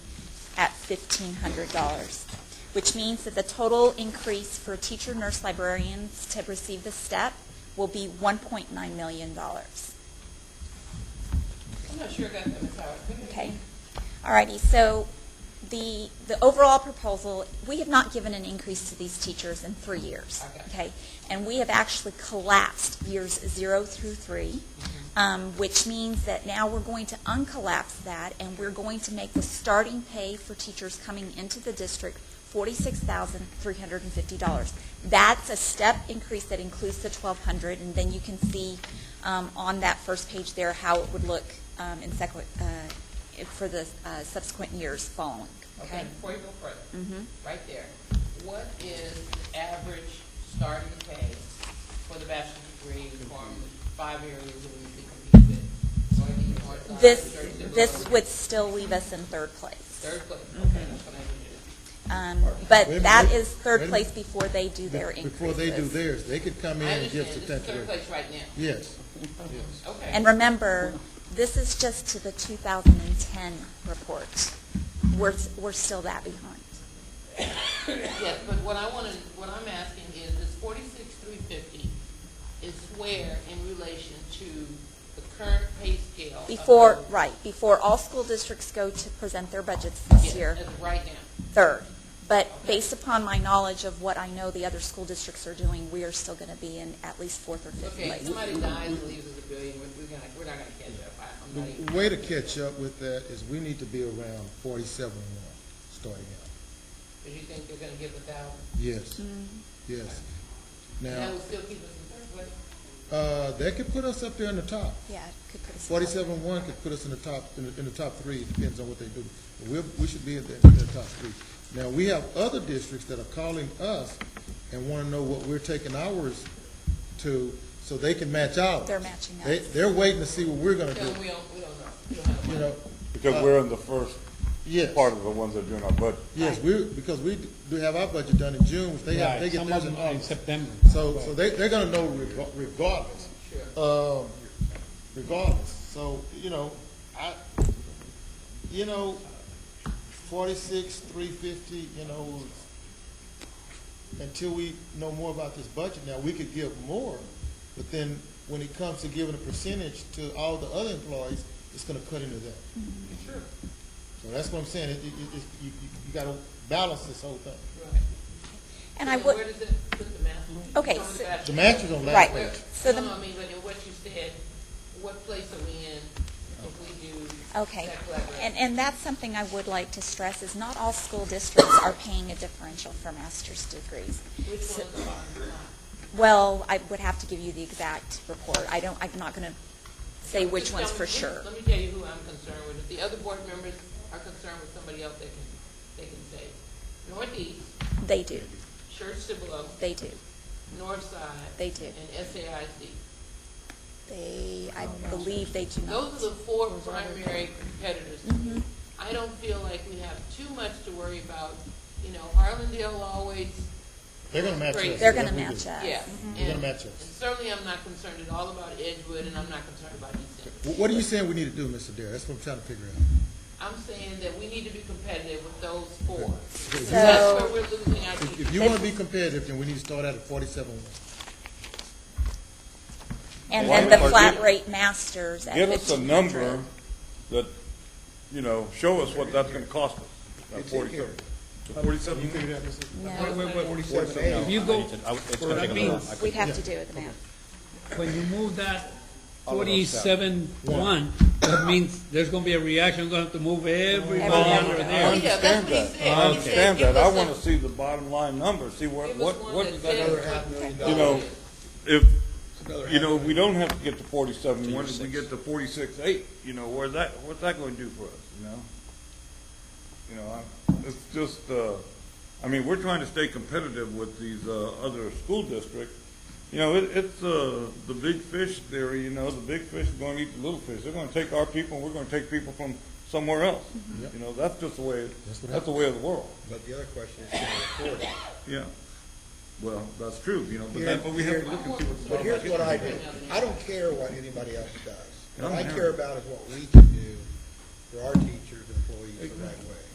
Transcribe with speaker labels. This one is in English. Speaker 1: $1,500, which means that the total increase for teacher, nurse, librarians to receive the step will be $1.9 million.
Speaker 2: I'm not sure that, I'm sorry.
Speaker 1: Okay. All righty, so the, the overall proposal, we have not given an increase to these teachers in three years.
Speaker 2: Okay.
Speaker 1: And we have actually collapsed years zero through three, um, which means that now we're going to uncollapse that, and we're going to make the starting pay for teachers coming into the district $46,350. That's a step increase that includes the 1,200, and then you can see um, on that first page there how it would look um, in sequ- uh, for the uh, subsequent years following,
Speaker 2: Okay,
Speaker 1: okay?
Speaker 2: before you go further,
Speaker 1: Mhm.
Speaker 2: right there, what is the average starting pay for the bachelor's degree from five areas that we could compete with? Or do you want to-
Speaker 1: This,
Speaker 2: third to
Speaker 1: this
Speaker 2: lower?
Speaker 1: would Mm-hmm. still leave us in third place.
Speaker 2: Third place, okay, that's what I needed.
Speaker 1: Um, But
Speaker 3: Wait a
Speaker 1: that
Speaker 3: minute.
Speaker 1: is third
Speaker 3: Wait a
Speaker 1: place before they do their increases.
Speaker 3: Before they do theirs, they could come in
Speaker 2: I
Speaker 3: and
Speaker 2: understand,
Speaker 3: give
Speaker 2: this
Speaker 3: the
Speaker 2: is third
Speaker 3: tenth grade.
Speaker 2: place right now,
Speaker 3: Yes,
Speaker 2: okay.
Speaker 1: And remember, this is just to the 2010 report. We're, we're still that behind.
Speaker 2: Yes, but what I wanted, what I'm asking is, is forty-six, three fifty is where in relation to the current pay scale? of
Speaker 1: Before,
Speaker 2: those-
Speaker 1: right, before all school districts go to present their budgets this
Speaker 2: Yes,
Speaker 1: year,
Speaker 2: as of right now,
Speaker 1: third. But based upon my knowledge of what I know the other school districts are doing, we are still going to be in at least fourth or fifth
Speaker 2: okay,
Speaker 1: place.
Speaker 2: somebody dies and leaves us a billion, we're, we're gonna, we're not gonna catch up, I, I'm not even.
Speaker 3: the way to catch up with that is we need to be around forty-seven and one, starting out.
Speaker 2: Because you think they're gonna give a thousand,
Speaker 3: Yes,
Speaker 1: Mm-hmm.
Speaker 3: yes.
Speaker 2: and that
Speaker 3: Now,
Speaker 2: will still keep us in third place?
Speaker 3: uh, they could put us up there in the top.
Speaker 1: Yeah, it could put us.
Speaker 3: Forty-seven one could put us in the top, in the, in the top three, depends on what they do. But We're, we should be in the, in the top three. Now, we have other districts that are calling us and wanna know what we're taking ours to, so they can match ours.
Speaker 1: They're matching
Speaker 3: They,
Speaker 1: us.
Speaker 3: they're waiting to see what we're gonna
Speaker 2: Tell
Speaker 3: do,
Speaker 2: them we don't, we don't know, we don't have the
Speaker 3: you
Speaker 2: money.
Speaker 3: know?
Speaker 4: Because we're in the first
Speaker 3: Yes,
Speaker 4: part of the ones that are doing our budget.
Speaker 3: yes, we, because we do have our budget done in June, which they have, they
Speaker 5: Right,
Speaker 3: get
Speaker 5: some
Speaker 3: theirs
Speaker 5: of
Speaker 3: in
Speaker 5: them are in
Speaker 3: August.
Speaker 5: September.
Speaker 3: So, so they, they're gonna know reg- regardless. Um, regardless, so, you know, I, you know, forty-six, three fifty, you know, until we know more about this budget now, we could give more, but then when it comes to giving a percentage to all the other employees, it's gonna cut into that.
Speaker 2: Sure.
Speaker 3: So that's what I'm saying, it, it, it- it's- you, you, you gotta balance this whole thing.
Speaker 2: Right.
Speaker 1: And I
Speaker 2: So Where
Speaker 1: would,
Speaker 2: does it put the math?
Speaker 1: Okay,
Speaker 2: Some of
Speaker 1: so-
Speaker 2: math-
Speaker 3: The match is on
Speaker 1: Right.
Speaker 3: last
Speaker 2: Where-
Speaker 3: page.
Speaker 1: So the-
Speaker 2: No, no, I mean, but in what you said, what place are we in if we do
Speaker 1: okay.
Speaker 2: that collaboration?
Speaker 1: And, and that's something I would like to stress, is not all school districts are paying a differential for master's degrees.
Speaker 2: Which ones
Speaker 1: So-
Speaker 2: are not?
Speaker 1: Well, I would have to give you the exact report. I don't, I'm not going to say which
Speaker 2: Just
Speaker 1: ones
Speaker 2: tell
Speaker 1: for
Speaker 2: me- let me-
Speaker 1: sure.
Speaker 2: Let me tell you who I'm concerned with. If the other board members are concerned with somebody else, they can, they can say. Northeast,
Speaker 1: They do,
Speaker 2: Church Cibolo,
Speaker 1: they do,
Speaker 2: Northside.
Speaker 1: They do.
Speaker 2: And SAIC.
Speaker 1: they,
Speaker 4: Oh,
Speaker 1: I believe they do not.
Speaker 2: Those are the four Mm-hmm. primary competitors. I don't feel like we have too much to worry about. You know, Harlandale always,
Speaker 3: They're gonna match
Speaker 2: Great.
Speaker 3: us.
Speaker 1: They're going to
Speaker 3: whatever we
Speaker 1: match
Speaker 3: do.
Speaker 1: us.
Speaker 2: yeah.
Speaker 3: They're gonna
Speaker 2: And-
Speaker 3: match us.
Speaker 2: and Certainly, I'm not concerned at all about Edgewood, and I'm not concerned about East End.
Speaker 3: Wh- What are you saying we need to do, Mr. Dare? That's what I'm trying to figure out.
Speaker 2: I'm saying that we need to be competitive with those four.
Speaker 1: So-
Speaker 2: That's where we're losing our
Speaker 3: If
Speaker 2: teachers.
Speaker 3: if you want to be competitive, then we need to start out at forty-seven.
Speaker 1: And
Speaker 4: Why
Speaker 1: then the
Speaker 4: don't-
Speaker 1: flat rate masters at
Speaker 4: Give us a
Speaker 1: 1,500.
Speaker 4: number that, you know, show us what that's gonna cost us. That Forty-seven. The Forty-seven.
Speaker 1: No,
Speaker 5: If you go, that means,
Speaker 1: we'd have to do it now.
Speaker 5: when you move that forty-seven one, that means there's gonna be a reaction, we're gonna have to move everybody
Speaker 1: Everybody.
Speaker 5: under
Speaker 4: I
Speaker 5: there.
Speaker 4: understand
Speaker 2: Yeah,
Speaker 4: that.
Speaker 2: that's what he said.
Speaker 4: I
Speaker 2: He said
Speaker 4: understand
Speaker 2: give
Speaker 4: that. I
Speaker 2: us
Speaker 4: wanna
Speaker 2: a-
Speaker 4: see the bottom line number, see what,
Speaker 2: Give us
Speaker 4: what,
Speaker 2: one
Speaker 4: what,
Speaker 2: that says,
Speaker 4: you know, if, you know, we don't have to get to forty-seven one, if we get to forty-six eight, you know, where's that, what's that gonna do for us, you know? You know, I, it's just, uh, I mean, we're trying to stay competitive with these, uh, other school districts. You know, it, it's, uh, the big fish theory, you know, the big fish is gonna eat the little fish. They're gonna take our people, and we're gonna take people from somewhere else. You know, that's just the way,
Speaker 3: Mm-hmm. That's what
Speaker 4: that's the way of the world,
Speaker 6: But the other question is, can we afford it?
Speaker 4: yeah. Well, that's true, you know, but that's what we have to look at people's.
Speaker 6: But here's what I do. I don't care what anybody else does. What I
Speaker 4: Yeah.
Speaker 6: care about is what we can do for our teachers, employees, the right way.